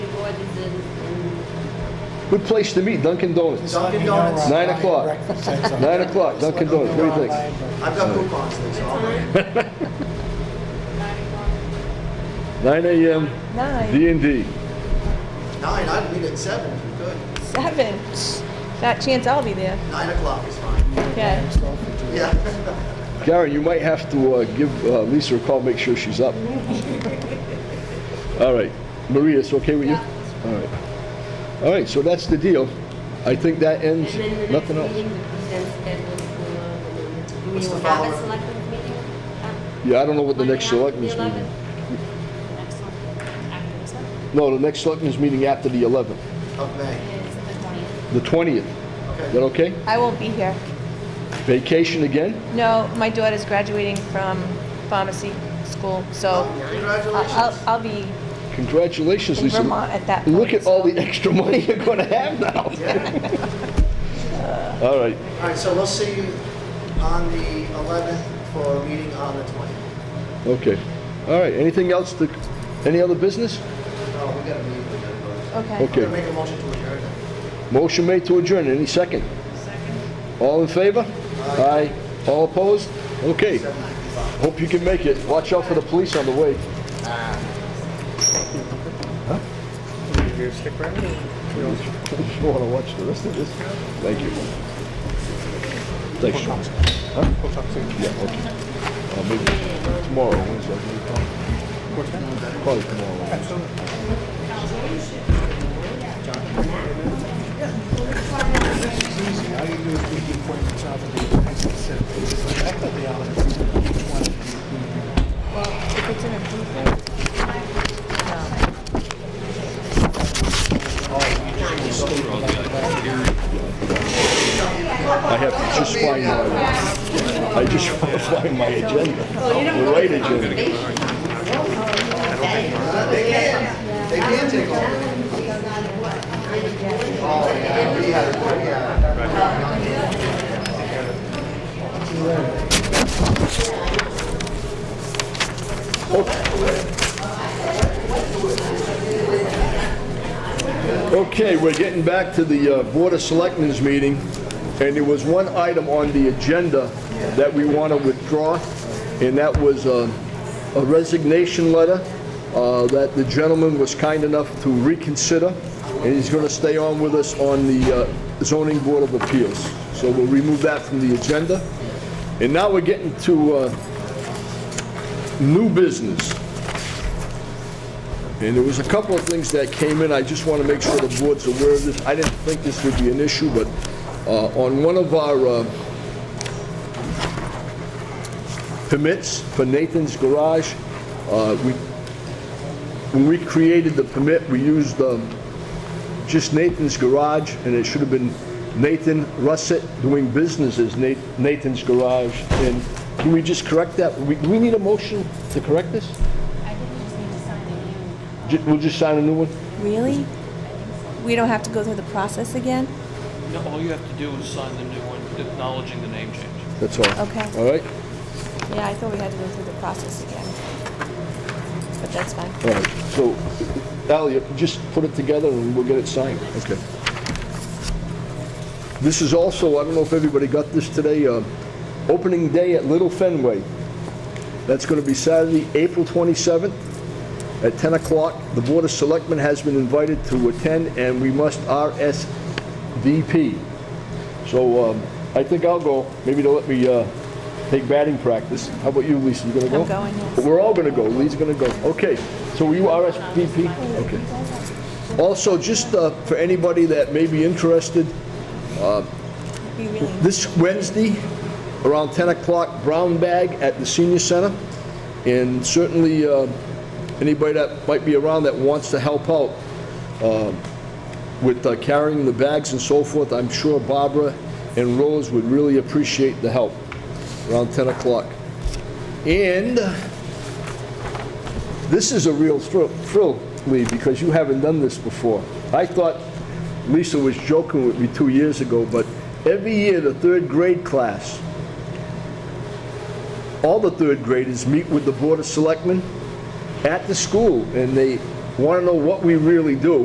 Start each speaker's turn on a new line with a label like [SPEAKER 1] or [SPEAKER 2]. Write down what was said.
[SPEAKER 1] what is it? in-
[SPEAKER 2] Good place to meet, Dunkin' Donuts.
[SPEAKER 3] Dunkin' Donuts.
[SPEAKER 2] Nine o'clock. Nine o'clock, Dunkin' Donuts, what do you think?
[SPEAKER 3] I've got coupons, there, so I'll bring it.
[SPEAKER 2] Nine AM,
[SPEAKER 4] Nine,
[SPEAKER 2] D and D.
[SPEAKER 3] Nine, I'd meet at seven, if you could.
[SPEAKER 4] seven. That chance I'll be there.
[SPEAKER 3] Nine o'clock is fine.
[SPEAKER 4] Okay.
[SPEAKER 3] Yeah.
[SPEAKER 2] Gary, you might have to uh, give uh, Lisa a call, make sure she's up. All right, Maria, it's okay with you? All right. All right, so that's the deal. I think that
[SPEAKER 1] And
[SPEAKER 2] ends,
[SPEAKER 1] then the next
[SPEAKER 2] nothing else.
[SPEAKER 1] meeting, the present schedule for, do we
[SPEAKER 3] What's the
[SPEAKER 1] will have a
[SPEAKER 3] follow-up?
[SPEAKER 1] selectmen's meeting? uh,
[SPEAKER 2] Yeah, I don't know what the next
[SPEAKER 1] right after
[SPEAKER 2] selectmen's
[SPEAKER 1] the
[SPEAKER 2] meeting.
[SPEAKER 1] 11th?
[SPEAKER 5] Next one, after this one,
[SPEAKER 2] No, the next selectmen's meeting after the 11th,
[SPEAKER 3] Of May,
[SPEAKER 5] is the 20th.
[SPEAKER 2] the 20th. Is that
[SPEAKER 3] okay.
[SPEAKER 2] okay?
[SPEAKER 4] I won't be here.
[SPEAKER 2] Vacation again?
[SPEAKER 4] No, my daughter's graduating from pharmacy school, so I'll,
[SPEAKER 3] Oh, Congratulations.
[SPEAKER 4] I'll be
[SPEAKER 2] Congratulations,
[SPEAKER 4] in
[SPEAKER 2] Lisa.
[SPEAKER 4] Vermont at that point.
[SPEAKER 2] Look at all
[SPEAKER 4] so-
[SPEAKER 2] the extra money you're gonna have now.
[SPEAKER 3] Yeah.
[SPEAKER 2] All right,
[SPEAKER 3] All right, so we'll see you on the eleventh for a meeting on the twentieth.
[SPEAKER 2] okay. All right, anything else to, any other business?
[SPEAKER 3] Oh, we got a meeting, we gotta go.
[SPEAKER 4] Okay.
[SPEAKER 3] I'm gonna
[SPEAKER 2] Okay.
[SPEAKER 3] make a motion to adjourn.
[SPEAKER 2] Motion made to adjourn, any second? Second. All in favor? Aye. All opposed? Okay,
[SPEAKER 3] Seven ninety-five.
[SPEAKER 2] hope you can make it. Watch out for the police on the way. Ah. You wanna watch the rest of this? Thank you. Thanks, Sean. Huh? Yeah, okay. Uh, maybe tomorrow, Wednesday. Probably tomorrow.
[SPEAKER 6] All you do is read the appointments out of the pencil set. I thought they all had each one.
[SPEAKER 4] If it's an improvement,
[SPEAKER 2] I have to just find my, I just want to find my agenda, the right agenda.
[SPEAKER 3] They can, they can take over. Oh, yeah, we had, yeah.
[SPEAKER 2] Okay, we're getting back to the uh, Board of Selectmen's meeting, and there was one item on the agenda that we want to withdraw, and that was uh, a resignation letter uh, that the gentleman was kind enough to reconsider, and he's going to stay on with us on the uh, Zoning Board of Appeals. So we'll remove that from the agenda. And now we're getting to uh, new business. And there was a couple of things that came in, I just want to make sure the board's aware of this. I didn't think this would be an issue, but uh, on one of our uh, permits for Nathan's Garage, uh, we, when we created the permit, we used um, just Nathan's Garage, and it should have been Nathan Russet doing business as Na- Nathan's Garage. And can we just correct that? We- Do we need a motion to correct this?
[SPEAKER 5] I think we just need to sign a new.
[SPEAKER 2] Ju- We'll just sign a new one?
[SPEAKER 4] really? We don't have to go through the process again?
[SPEAKER 7] No, all you have to do is sign the new one acknowledging the name change.
[SPEAKER 2] That's all.
[SPEAKER 4] Okay.
[SPEAKER 2] All right?
[SPEAKER 4] Yeah, I thought we had to go through the process again. But that's fine.
[SPEAKER 2] All right. So, Al, you just put it together and we'll get it signed. Okay. This is also, I don't know if everybody got this today, uh, opening day at Little Fenway. That's going to be Saturday, April 27th at 10 o'clock. The Board of Selectmen has been invited to attend and we must RSVP. So um, I think I'll go. Maybe they'll let me uh, take batting practice. How about you, Lisa? You gonna go?
[SPEAKER 4] I'm going, yes.
[SPEAKER 2] But We're all gonna go. Lee's gonna go. Okay. So will you RSVP? Okay. Also, just uh, for anybody that may be interested, uh,
[SPEAKER 4] We really
[SPEAKER 2] this Wednesday, around 10 o'clock, brown bag at the senior center. And certainly, uh, anybody that might be around that wants to help out um, with uh, carrying the bags and so forth, I'm sure Barbara and Rose would really appreciate the help around 10 o'clock. And this is a real thrill, thrill, Lee, because you haven't done this before. I thought Lisa was joking with me two years ago, but every year, the third grade class, all the third graders meet with the Board of Selectmen at the school, and they want to know what we really do.